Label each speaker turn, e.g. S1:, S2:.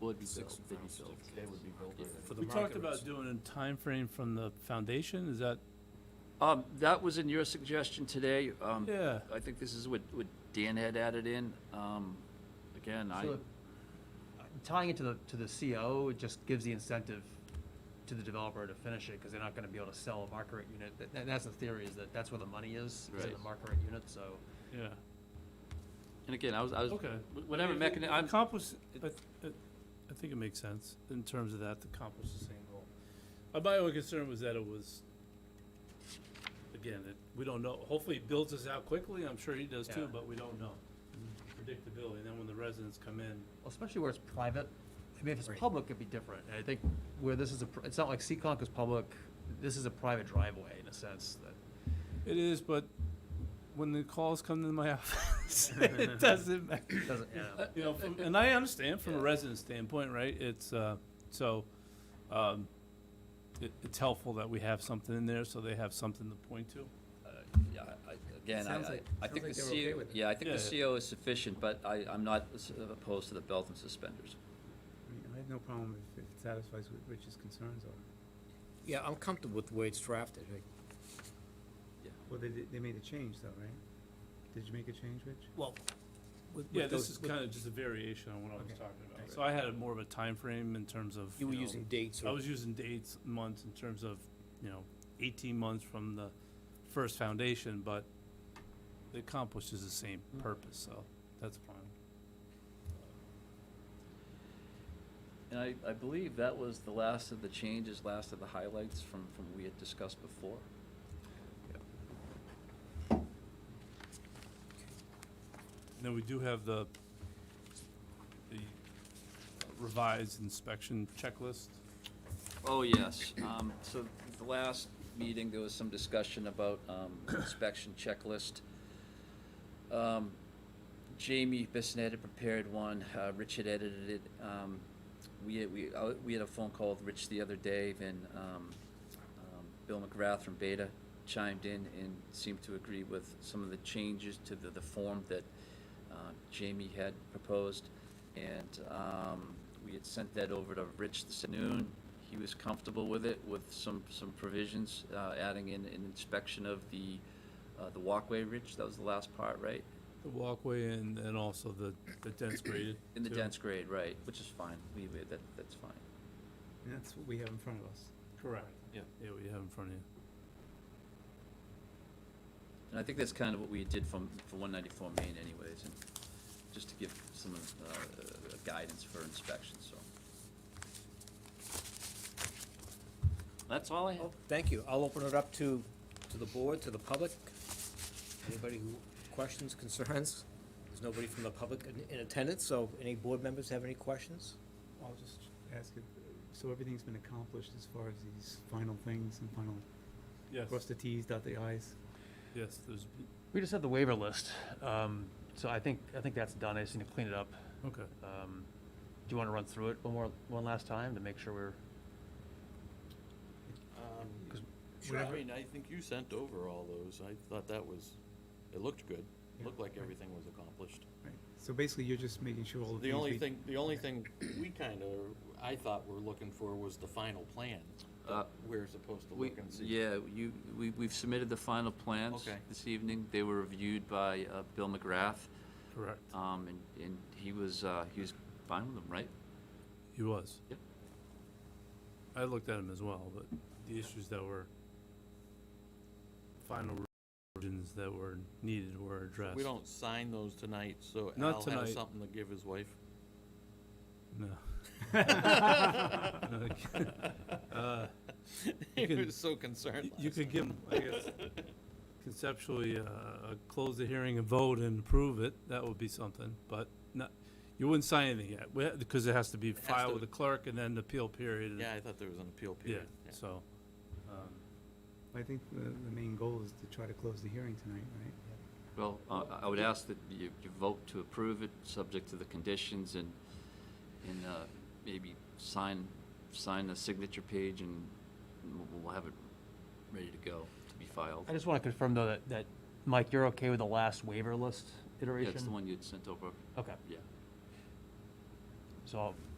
S1: would be built, they'd be built, they would be built already.
S2: for the
S3: We
S2: market.
S3: talked about
S2: rates.
S3: doing a time frame from the foundation, is that,
S1: Um, that was in your suggestion today, um,
S3: yeah,
S1: I think this is what, what Dan had added in, um, again, I,
S4: So uh, tying it to the, to the CO, it just gives the incentive to the developer to finish it, because they're not gonna be able to sell a market rate unit. That- That, that's the theory, is that that's where the money is, is in the
S1: Right.
S4: market rate unit, so.
S3: yeah,
S1: and again, I was, I was,
S3: okay.
S1: wh- whatever
S3: If it-
S1: mechani-
S3: if it
S1: I'm-
S3: accomplishes- I, I- I think it makes sense in terms of that, to accomplish the same goal. Uh, My only concern was that it was, again, it, we don't know, hopefully it builds us out quickly, I'm sure he does too,
S4: Yeah.
S3: but we don't know. Predictability, and then when the residents come in,
S4: Well, Especially where it's private, I mean, if
S3: Right.
S4: it's public, it'd be different, and I think where this is a, pr- it's not like Seekonk is public, this is a private driveway in a sense, that,
S3: it is, but when the calls come to my office, it doesn't matter.
S1: uh,
S4: doesn't, yeah.
S3: You know, from, and I understand from a resident standpoint, right, it's, uh, so, um, it, it's helpful that we have something in there, so they have something to point to.
S1: Uh, Yeah, I- I- again,
S5: Sounds
S1: I, I
S5: like- sounds
S1: think the
S5: like they were okay
S1: CO,
S5: with it.
S1: yeah, I think
S3: Yeah,
S1: the
S3: yeah.
S1: CO is sufficient, but I, I'm not s- opposed to the belt and suspenders.
S5: I mean, I have no problem if if it satisfies what Rich's concerns are.
S2: Yeah, I'm comfortable with the way it's drafted. like-
S5: Well, they, did- they made a change though, right? Did you make a change, Rich?
S2: Well, with,
S3: Yeah,
S2: with
S3: this
S2: those.
S3: is
S2: with-
S3: kinda just a variation on what I was
S5: Okay.
S3: talking about,
S5: Right.
S3: so I had a more of a time frame in terms of,
S2: You were
S3: know,
S2: using dates
S3: I
S2: or,
S3: was using dates, months, in terms of, you know, eighteen months from the first foundation, but it accomplishes the same
S2: Mm.
S3: purpose, so that's fine.
S1: And I, I believe that was the last of the changes, last of the highlights from, from we had discussed before.
S3: Now, we do have the the revised inspection checklist.
S1: Oh, yes. Um, so the last meeting, there was some discussion about, um, inspection checklist. Um, Jamie Bissonette had prepared one, uh, Rich had edited it. Um, we had, we, uh, we had a phone call with Rich the other day and, um, um, Bill McGrath from Beta chimed in and seemed to agree with some of the changes to the, the form that, uh, Jamie had proposed. And, um, we had sent that over to Rich this afternoon. He was comfortable with it, with some, some provisions, uh, adding in an inspection of the, uh, the walkway, Rich, that was the last part, right?
S3: The walkway and, and also the, the dense graded.
S1: In the
S3: too.
S1: dense grade, right, which is fine, we, we- that, that's fine.
S5: And that's what we have in front of us.
S3: Correct. Yeah. Yeah, what you have in front of you.
S1: And I think that's kind of what we did from, for one ninety-four Main anyways, and just to give some, uh, uh, guidance for inspection, so. That's all I have.
S2: Oh, thank you. I'll open it up to, to the board, to the public. Anybody who, questions, concerns? There's nobody from the public in- in attendance, so any board members have any questions?
S5: I'll just ask if, so everything's been accomplished as far as these final things and final, cross
S3: Yes,
S5: the Ts, dot the Is?
S3: yes, there's,
S4: We just have the waiver list, um, so I think, I think that's done, I just need to clean it up.
S3: okay.
S4: Um, do you wanna run through it one more, one last time to make sure we're?
S6: Um,
S4: 'Cause
S6: Sure, I mean, I think you sent over all those, I thought that was, it looked good,
S5: Yeah.
S6: looked like everything was accomplished.
S5: Right, so basically you're just making sure all the things
S6: The only
S5: we-
S6: thing, the only thing we kinda, I thought we're looking for was the final plan,
S1: Uh,
S6: that we're supposed to
S1: We,
S6: look and see.
S1: yeah, you, we, we've submitted the final plans
S6: Okay.
S1: this evening, they were reviewed by, uh, Bill McGrath,
S3: Correct.
S1: um, and, and he was, uh, he was fine with them, right?
S3: He was.
S1: Yep.
S3: I looked at him as well, but the issues that were final revisions that were needed were addressed.
S6: We don't sign those tonight, so
S3: Not
S6: Al
S3: tonight.
S6: has something to give his wife.
S3: No. Uh,
S6: He
S3: can-
S6: was so concerned
S3: You
S6: last
S3: could give, 'em, I guess, conceptually, uh, uh, close the hearing and vote and approve it, that would be something, but not, you wouldn't sign anything yet, we- because it has to be
S6: has
S3: filed
S6: to-
S3: with the clerk and then the appeal period. and-
S6: Yeah, I thought there was an appeal
S3: Yeah,
S6: period. yeah.
S3: so, um,
S5: I think the, the main goal is to try to close the hearing tonight, right?
S1: Well, uh, I would ask that you, you vote to approve it, subject to the conditions and, and, uh, maybe sign, sign the signature page and we'll- we'll have it ready to go, to be filed.
S4: I just wanna confirm though that, that, Mike, you're okay with the last waiver list
S1: Yeah,
S4: iteration?
S1: it's the one you'd sent over,
S4: Okay,
S1: yeah.
S4: so I'll